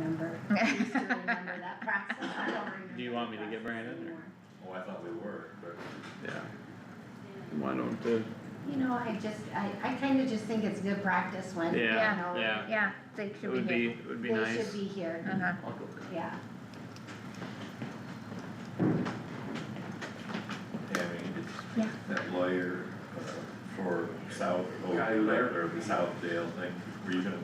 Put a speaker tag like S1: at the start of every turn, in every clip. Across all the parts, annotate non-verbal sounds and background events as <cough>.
S1: I used to remember that process, I don't remember.
S2: Do you want me to
S1: that
S2: get
S1: process
S2: Brandon, or-
S1: anymore.
S3: Oh, I thought we were, but
S4: yeah, why don't the,
S1: You know, I just, I, I kinda just think it's good practice when, you know.
S4: Yeah.
S2: Yeah.
S5: yeah, they
S4: it
S5: should be
S4: would
S5: here.
S4: be, it would be nice.
S1: They should be here,
S5: Uh-huh,
S4: I'll go with
S1: yeah.
S3: yeah, I mean, it's
S5: Yeah.
S3: that lawyer uh, for South Oak,
S4: Guy who left?
S3: or the Southdale thing, were you gonna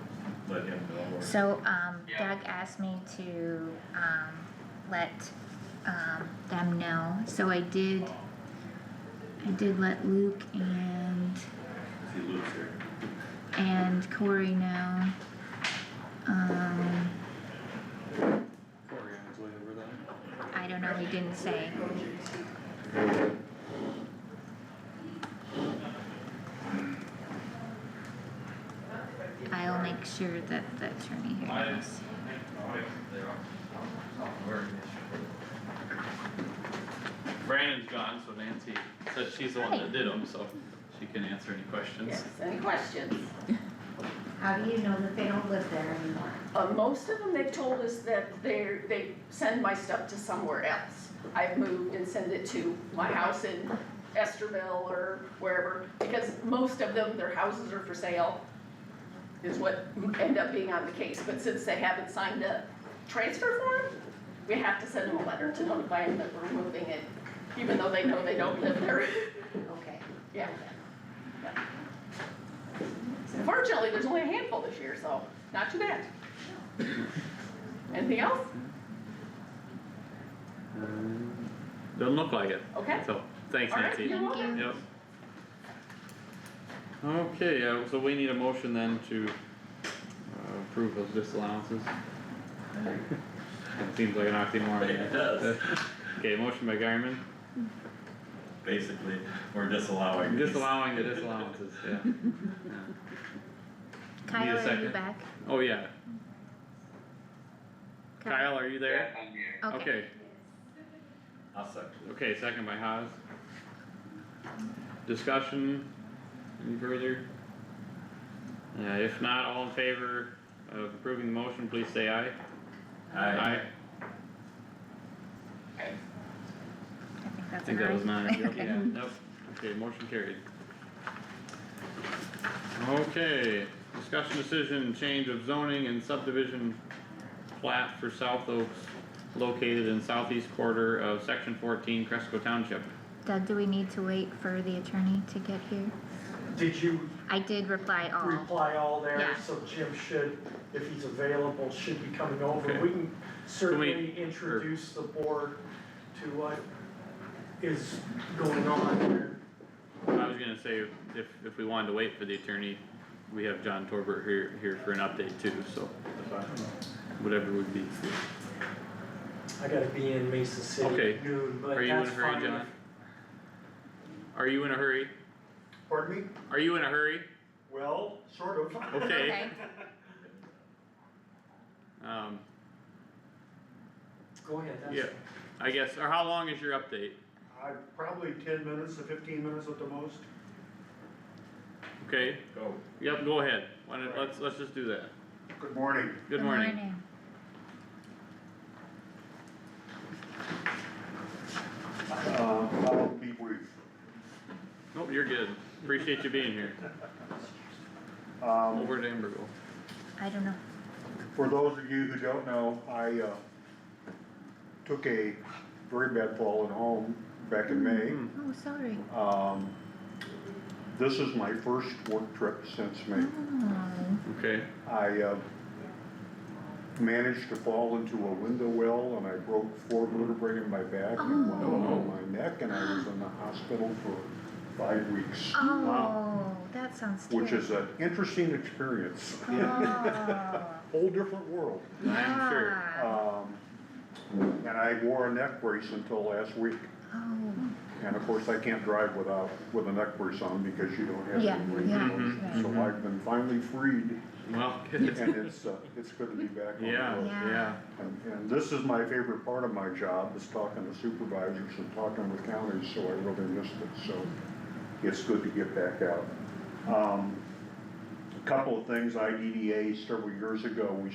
S3: let him know or?
S5: so, um,
S2: Yeah.
S5: Doug asked me to, um, let, um, them know, so I did. I did let Luke and,
S3: See Luke's here.
S5: and Corey know. Um,
S4: that. Corey on his way over there.
S5: I don't know, he didn't say, I'll make sure that the attorney here knows.
S2: Brandon's gone, so Nancy said she's the one that did them, so she can answer any questions.
S6: Yes, any questions?
S1: How do you know that they don't live there anymore?
S6: Uh, most of them, they've told us that they're, they send my stuff to somewhere else. I've moved and send it to my house in Esterville or wherever, because most of them, their houses are for sale, is what end up being on the case, but since they haven't signed a transfer form, we have to send them a letter to notify them that we're moving it, even though they know they don't live there.
S1: Okay.
S6: Yeah. Fortunately, there's only a handful this year, so not too bad. Anything else?
S4: Um, Doesn't look like it,
S6: Okay.
S2: So, thanks
S6: All right,
S2: Nancy.
S6: you're
S5: Thank
S6: welcome.
S5: you.
S2: Yep.
S4: okay, uh, so we need a motion then to uh, approve those disallowances. Seems like an oxymoron.
S3: It <laughs> does.
S4: Okay, motion by Garmin,
S3: Basically, we're disallowing. these.
S4: disallowing the disallowances, yeah.
S5: Kyle, are you
S4: second?
S5: back?
S4: Oh, yeah, Kyle, are you there?
S5: Okay,
S4: Okay,
S3: I'll second.
S4: okay, second by Haas. Discussion, any further? Yeah, if not, all in favor of approving the motion, please say aye.
S3: Aye.
S5: I think
S4: I
S5: that's
S4: think that was
S5: an <laughs>
S4: nine, yep,
S5: Okay.
S4: yeah, yep, okay, motion carried. Okay, discussion decision, change of zoning and subdivision plat for South Oaks located in southeast quarter of section fourteen Cresco Township.
S5: aye. Doug, do we need to wait for the attorney to get here?
S7: Did you
S5: I did reply all,
S7: reply all there,
S5: Oh. Yeah.
S7: so Jim should, if he's available, should be coming over.
S4: Okay.
S7: We can certainly introduce the board to what is going on here.
S4: I was gonna say, if, if we wanted to wait for the attorney, we have John Torbert here, here for an update too, so whatever would be.
S7: I gotta be in Mesa City
S4: Okay.
S7: at noon, but
S4: Are you in a
S7: that's
S4: hurry,
S7: fine.
S4: John? Are you in a hurry?
S7: Pardon me?
S4: Are you in a hurry?
S7: Well, sort of.
S4: Okay.
S5: Okay.
S4: Um,
S7: Go ahead, that's.
S4: yeah, I guess, or how long is your update?
S8: I, probably ten minutes to fifteen minutes at the most.
S4: Okay,
S3: Go.
S4: yep, go ahead, why not, let's, let's just do that,
S8: Good morning.
S4: good morning.
S8: Uh, I'll be brief.
S4: Nope, Oh, you're good, appreciate you being here,
S8: Um,
S4: over to Amberville.
S5: I don't know,
S8: for those of you who don't know, I, uh, took a very bad fall at home back in May.
S5: oh, sorry,
S8: Um, this is my first work trip since May.
S5: oh,
S4: Okay,
S8: I, uh, managed to fall into a window well and I broke four vertebrae in my back and one
S5: Oh.
S8: on my neck and I was in the hospital for five weeks.
S5: oh, that sounds terrible.
S8: which is an interesting experience.
S5: Oh, yeah.
S8: <laughs> Whole different world.
S4: I'm sure.
S8: Um, and I wore a neck brace until last week.
S5: Oh,
S8: And of course, I can't drive without, with a neck brace on because you don't have
S5: Yeah,
S8: any range
S5: yeah,
S8: of motion. So
S4: yeah.
S8: I've been finally freed
S4: well, <laughs>
S8: and it's, uh, it's good to be back on the
S4: yeah,
S8: road.
S4: yeah,
S5: Yeah.
S8: And, and this is my favorite part of my job, is talking to supervisors and talking with counties, so I really missed it, so it's good to get back out. Um, A couple of things, IDDA, E several years ago, we